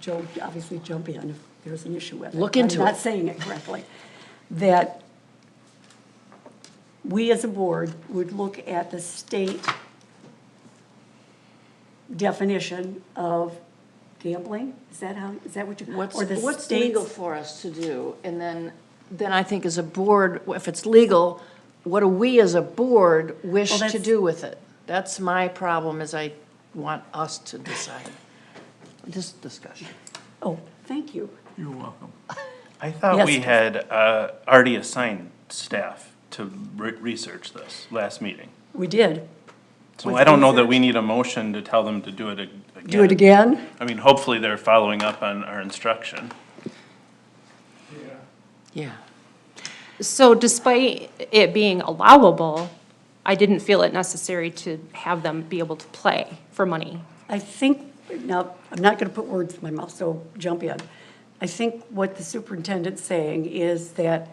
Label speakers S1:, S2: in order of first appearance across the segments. S1: Joe, obviously jump in if there's an issue with it.
S2: Look into
S1: I'm not
S2: it.
S1: saying it correctly. That we as a board would look at the state definition of gambling? Is that how, is that what you?
S2: What's,
S1: or the
S2: what's
S1: state's-
S2: legal for us to do? And then, then I think as a board, if it's legal, what do we as a board wish
S1: Well,
S2: to
S1: that's-
S2: do with it? That's my problem, is I want us to decide this discussion.
S1: Oh, thank you.
S3: You're welcome.
S4: I thought we
S1: Yes.
S4: had uh, already assigned staff to re- research this last meeting.
S1: We did.
S4: So
S1: With
S4: I don't know that we
S1: research.
S4: need a motion to tell them to do it ag-
S1: Do it again?
S4: I mean, hopefully they're following up on our instruction.
S2: Yeah.
S5: So despite it being allowable, I didn't feel it necessary to have them be able to play for money.
S1: I think, now, I'm not going to put words in my mouth, so jump in. I think what the superintendent's saying is that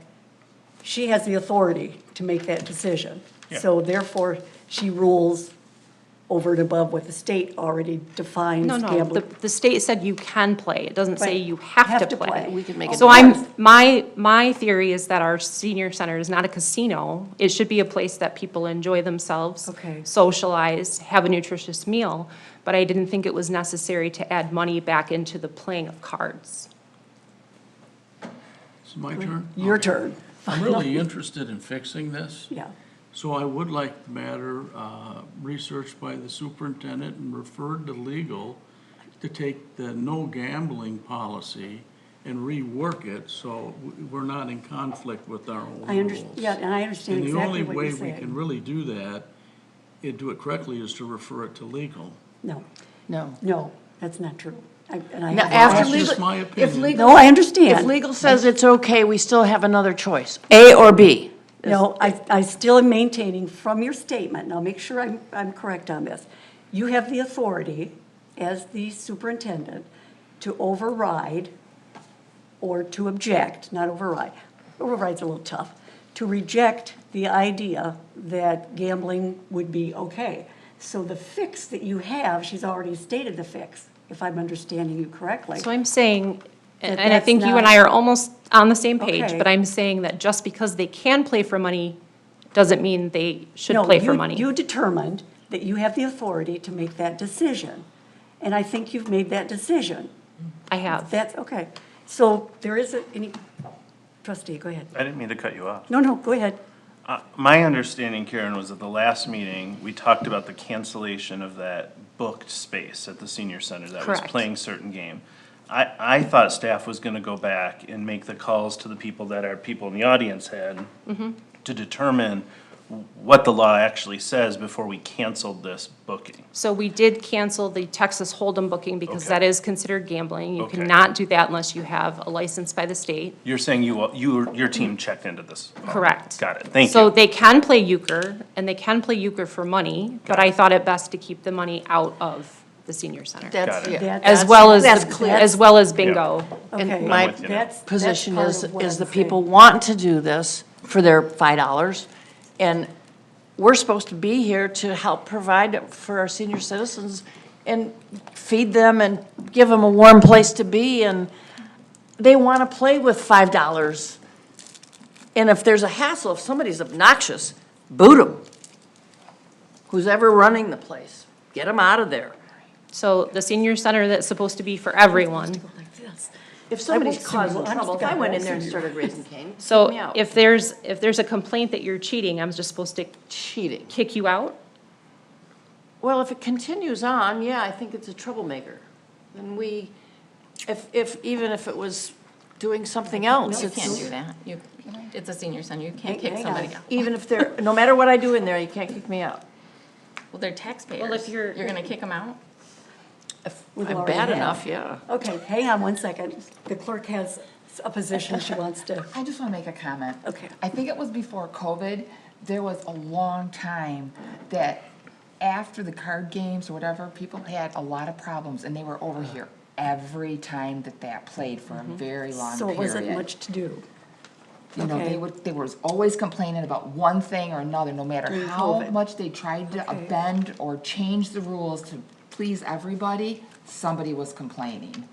S1: she has the authority to make that decision. So therefore, she rules over and above what the state already defines
S5: No, no, the,
S1: gambling.
S5: the state said you can play, it doesn't say
S1: Right.
S5: you have to play.
S2: We can make it
S5: So I'm, my, my theory is that our senior center is not a casino. It should be a place that people enjoy themselves.
S1: Okay.
S5: Socialize, have a nutritious meal, but I didn't think it was necessary to add money back into the playing of cards.
S3: It's my turn? Oh.
S1: Your turn,
S3: I'm really interested in fixing this,
S1: yeah.
S3: so I would like the matter uh, researched by the superintendent and referred to legal to take the no gambling policy and rework it so w- we're not in conflict with our own
S1: I under,
S3: rules.
S1: yeah, and I understand
S3: And the
S1: exactly
S3: only
S1: what you're
S3: way we can
S1: saying.
S3: really do that, and do it correctly, is to refer it to legal.
S1: No,
S2: No.
S1: no, that's not true. I- And I.
S2: Now,
S3: that's
S2: after
S3: just
S2: legal.
S3: my
S2: if
S3: opinion.
S2: legal-
S1: No, I understand.
S2: If legal says it's okay, we still have another choice, A or B.
S1: No, I, I still am maintaining from your statement, and I'll make sure I'm, I'm correct on this. You have the authority as the superintendent to override or to object, not override. Override's a little tough. To reject the idea that gambling would be okay. So the fix that you have, she's already stated the fix, if I'm understanding you correctly.
S5: So I'm saying,
S1: That
S5: and I think
S1: that's
S5: you and
S1: not-
S5: I are almost on the same page,
S1: Okay.
S5: but I'm saying that just because they can play for money doesn't mean they should
S1: No,
S5: play for
S1: you-
S5: money.
S1: You determined that you have the authority to make that decision, and I think you've made that decision.
S5: I have.
S1: That's, okay. So there is a, any, trustee, go ahead.
S4: I didn't mean to cut you off.
S1: No, no, go ahead.
S4: Uh, My understanding, Karen, was at the last meeting, we talked about the cancellation of that booked space at the senior center that was
S5: Correct.
S4: playing certain game. I, I thought staff was gonna go back and make the calls to the people that our people in the audience had to determine what the law actually says before we canceled this booking.
S5: So we did cancel the Texas Hold'em booking because
S4: Okay.
S5: that is considered gambling. You
S4: Okay.
S5: cannot do that unless you have a license by the state.
S4: You're saying you, you, your team checked into this?
S5: Correct.
S4: Got it, thank you.
S5: So they can play euchre, and they can play euchre for money, but I thought it best to keep the money out of the senior center.
S2: That's,
S4: Got it.
S2: yeah.
S1: That-
S5: As well as,
S2: That's
S5: the-
S2: clear.
S5: as well as bingo. and-
S1: Okay.
S2: my
S4: with you now.
S1: That's- that's
S2: position
S1: part
S2: is,
S1: of what
S2: is the
S1: I'm saying.
S2: people want to do this for their five dollars. And we're supposed to be here to help provide for our senior citizens and feed them and give them a warm place to be and they want to play with five dollars. And if there's a hassle, if somebody's obnoxious, boot them. Who's ever running the place, get them out of there.
S5: So the senior center that's supposed to be for everyone.
S1: Like this.
S2: If somebody's
S1: sue you.
S2: causing
S1: I'm
S2: trouble, if I
S1: gonna
S2: went in there
S1: sue
S2: and
S1: you.
S2: started raising cane, kick me
S5: So
S2: out.
S5: if there's, if there's a complaint that you're cheating, I'm just supposed to
S2: cheating.
S5: kick you out?
S2: Well, if it continues on, yeah, I think it's a troublemaker. Then we, if, if, even if it was doing something else,
S6: You can't do
S2: it's,
S6: that. You, it's a senior center. You can't
S1: Hang-
S6: kick
S1: hang
S6: somebody
S1: on.
S6: out.
S2: even if they're, no matter what I do in there, you can't kick me out.
S6: Well, they're taxpayers.
S5: you're-
S6: You're gonna kick them out?
S2: If
S1: We've
S2: I'm
S1: already
S2: bad
S1: had.
S2: enough, yeah.
S1: Okay, hang on one second. The clerk has a position she wants to.
S7: I just want to make a comment.
S1: Okay.
S7: I think it was before COVID, there was a long time that after the card games or whatever, people had a lot of problems and they were over here every time that that played for a very long
S1: Mm-hmm. So it wasn't
S7: period.
S1: much to do.
S7: You know,
S1: okay.
S7: they would, they was always complaining about one thing or another, no matter
S1: During
S7: how
S1: COVID.
S7: much they tried to
S1: Okay.
S7: bend or change the rules to please everybody, somebody was complaining.